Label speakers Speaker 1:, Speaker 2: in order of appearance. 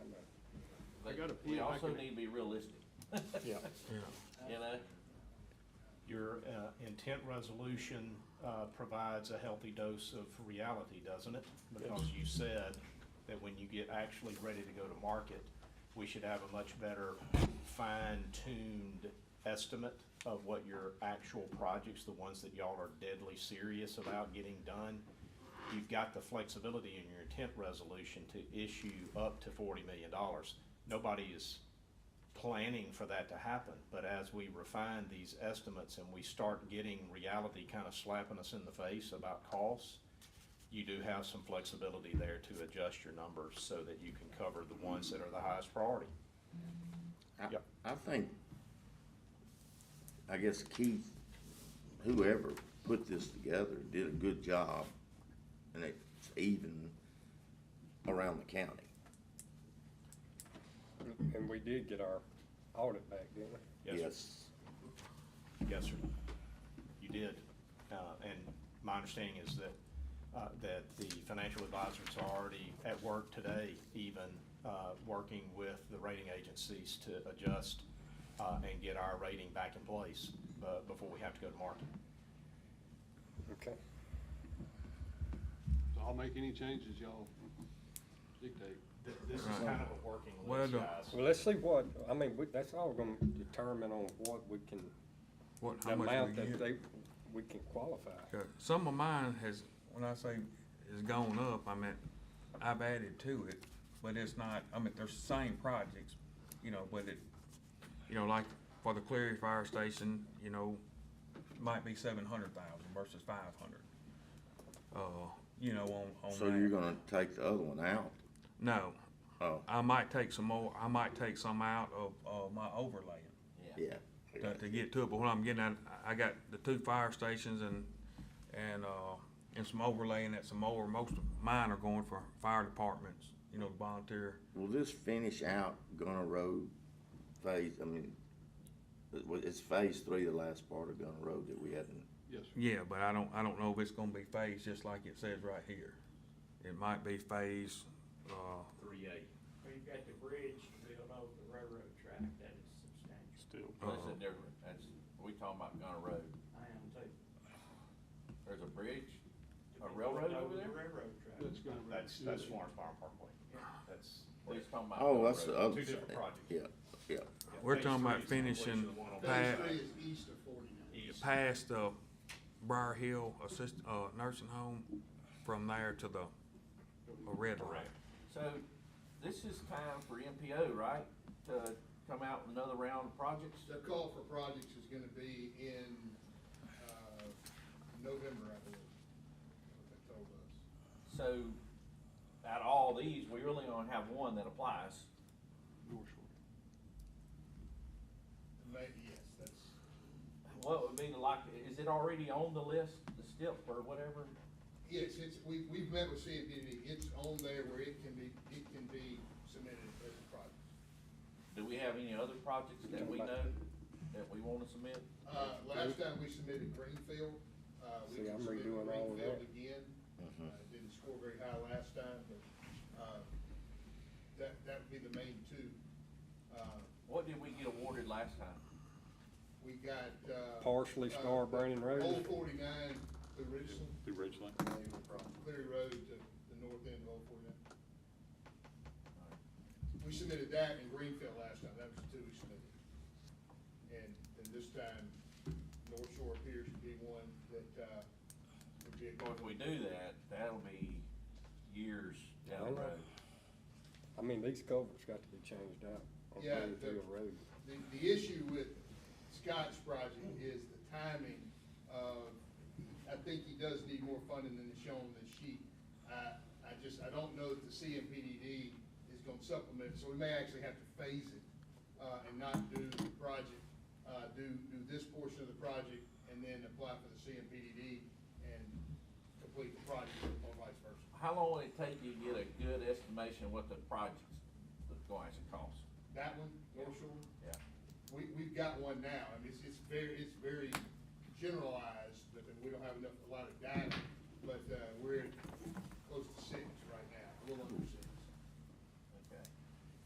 Speaker 1: got a
Speaker 2: We
Speaker 1: PO, I
Speaker 2: also
Speaker 1: can-
Speaker 2: need to be realistic,
Speaker 3: Yeah.
Speaker 2: you know?
Speaker 4: Your uh, intent resolution uh, provides a healthy dose of reality, doesn't it? Because you said that when you get actually ready to go to market, we should have a much better fine-tuned estimate of what your actual projects, the ones that y'all are deadly serious about getting done. You've got the flexibility in your intent resolution to issue up to forty million dollars. Nobody is planning for that to happen, but as we refine these estimates and we start getting reality kind of slapping us in the face about costs, you do have some flexibility there to adjust your numbers so that you can cover the ones that are the highest priority.
Speaker 5: I-
Speaker 4: Yep.
Speaker 5: I think, I guess Keith, whoever put this together did a good job and it's even around the county.
Speaker 6: And we did get our audit back, didn't we?
Speaker 4: Yes, sir. Yes, sir. You did. Uh, and my understanding is that, uh, that the financial advisors are already at work today, even, uh, working with the rating agencies to adjust, uh, and get our rating back in place, uh, before we have to go to market.
Speaker 6: Okay.
Speaker 1: so I'll make any changes y'all dictate.
Speaker 4: Th- This is kind of a working
Speaker 3: Well
Speaker 4: list,
Speaker 3: done.
Speaker 4: guys.
Speaker 6: Well, let's see what, I mean, we- that's all gonna determine on what we can,
Speaker 3: What,
Speaker 6: the
Speaker 3: how much we
Speaker 6: amount
Speaker 3: get.
Speaker 6: that they, we can qualify.
Speaker 3: Okay. Some of mine has, when I say has gone up, I meant I've added to it, but it's not, I mean, they're the same projects, you know, but it, you know, like for the Cleary Fire Station, you know, might be seven hundred thousand versus five hundred. Uh, you know, on, on
Speaker 5: So you're
Speaker 3: that.
Speaker 5: gonna take the other one out?
Speaker 3: No,
Speaker 5: Oh,
Speaker 3: I might take some more, I might take some out of, of my overlaying.
Speaker 5: yeah.
Speaker 3: to, to get to it, but what I'm getting at, I I got the two fire stations and, and, uh, and some overlaying at some more, most of mine are going for fire departments, you know, volunteer.
Speaker 5: Will this finish out Gunner Road phase, I mean, it wa- it's phase three, the last part of Gunner Road that we hadn't,
Speaker 1: Yes, sir.
Speaker 3: Yeah, but I don't, I don't know if it's gonna be phased, just like it says right here. It might be phased, uh,
Speaker 4: Three A.
Speaker 7: Well, you've got the bridge built over the railroad track, that is substantial.
Speaker 2: That's a
Speaker 3: uh,
Speaker 2: different, that's, we talking about Gunner Road.
Speaker 7: I am too.
Speaker 2: There's a bridge,
Speaker 7: The
Speaker 2: a
Speaker 7: bridge
Speaker 2: railroad
Speaker 7: built
Speaker 2: over
Speaker 7: the
Speaker 2: there?
Speaker 7: Railroad track.
Speaker 1: That's gonna.
Speaker 4: That's, that's Florence Farm Parkway. That's.
Speaker 2: He's talking about.
Speaker 5: oh,
Speaker 2: Gunner
Speaker 5: that's
Speaker 2: Road.
Speaker 5: the other
Speaker 4: Two
Speaker 5: side.
Speaker 4: different projects.
Speaker 5: Yeah, yeah.
Speaker 3: We're
Speaker 4: Phase
Speaker 3: talking
Speaker 4: three
Speaker 3: about
Speaker 4: is the completion
Speaker 3: finishing
Speaker 4: of the one on
Speaker 8: Phase
Speaker 3: Pat-
Speaker 8: three is east of forty-nine.
Speaker 4: east.
Speaker 3: past the Briar Hill Assist, uh, Nursing Home, from there to the, a red light.
Speaker 2: So, this is time for MPO, right, to come out with another round of projects?
Speaker 8: The call for projects is gonna be in, uh, November, I believe, what they told us.
Speaker 2: So, out of all these, we really only have one that applies.
Speaker 1: North Shore.
Speaker 8: Maybe, yes, that's,
Speaker 2: What would be the like, is it already on the list, the STIP or whatever?
Speaker 8: yes, it's, we, we've met with CMPD, it's on there where it can be, it can be submitted as a project.
Speaker 2: Do we have any other projects that we know that we wanna submit?
Speaker 8: Uh, last time we submitted Greenfield, uh, we
Speaker 6: See, I'm
Speaker 8: can submit
Speaker 6: redoing all of
Speaker 8: Greenfield
Speaker 6: that.
Speaker 8: again.
Speaker 2: Mm-hmm.
Speaker 8: Uh, Didn't score very high last time, but, uh, that, that would be the main two. Uh,
Speaker 2: What did we get awarded last time?
Speaker 8: We got, uh.
Speaker 6: Partially
Speaker 8: uh,
Speaker 6: Star Brandon Road.
Speaker 8: Old forty-nine to Richland,
Speaker 1: Through Ridgeline.
Speaker 8: Cleary Road to the north end of Old forty-nine. We submitted that in Greenfield last time, that was the two we submitted. And, and this time, North Shore appears to be one that, uh, would be a
Speaker 2: Well, if we do that, that'll be years down the road.
Speaker 6: I mean, these culverts got to be changed out on
Speaker 8: Yeah,
Speaker 6: Greenfield
Speaker 8: the-
Speaker 6: Road.
Speaker 8: The, the issue with Scott's project is the timing of, I think he does need more funding than is shown in this sheet. I, I just, I don't know that the CMPDD is gonna supplement, so we may actually have to phase it, uh, and not do the project, uh, do, do this portion of the project and then apply for the CMPDD and complete the project or vice versa.
Speaker 2: How long will it take you to get a good estimation of what the project's going to cost?
Speaker 8: That one, North Shore,
Speaker 2: Yeah.
Speaker 8: We, we've got one now, I mean, it's, it's very, it's very generalized, but we don't have enough, a lot of data, but, uh, we're,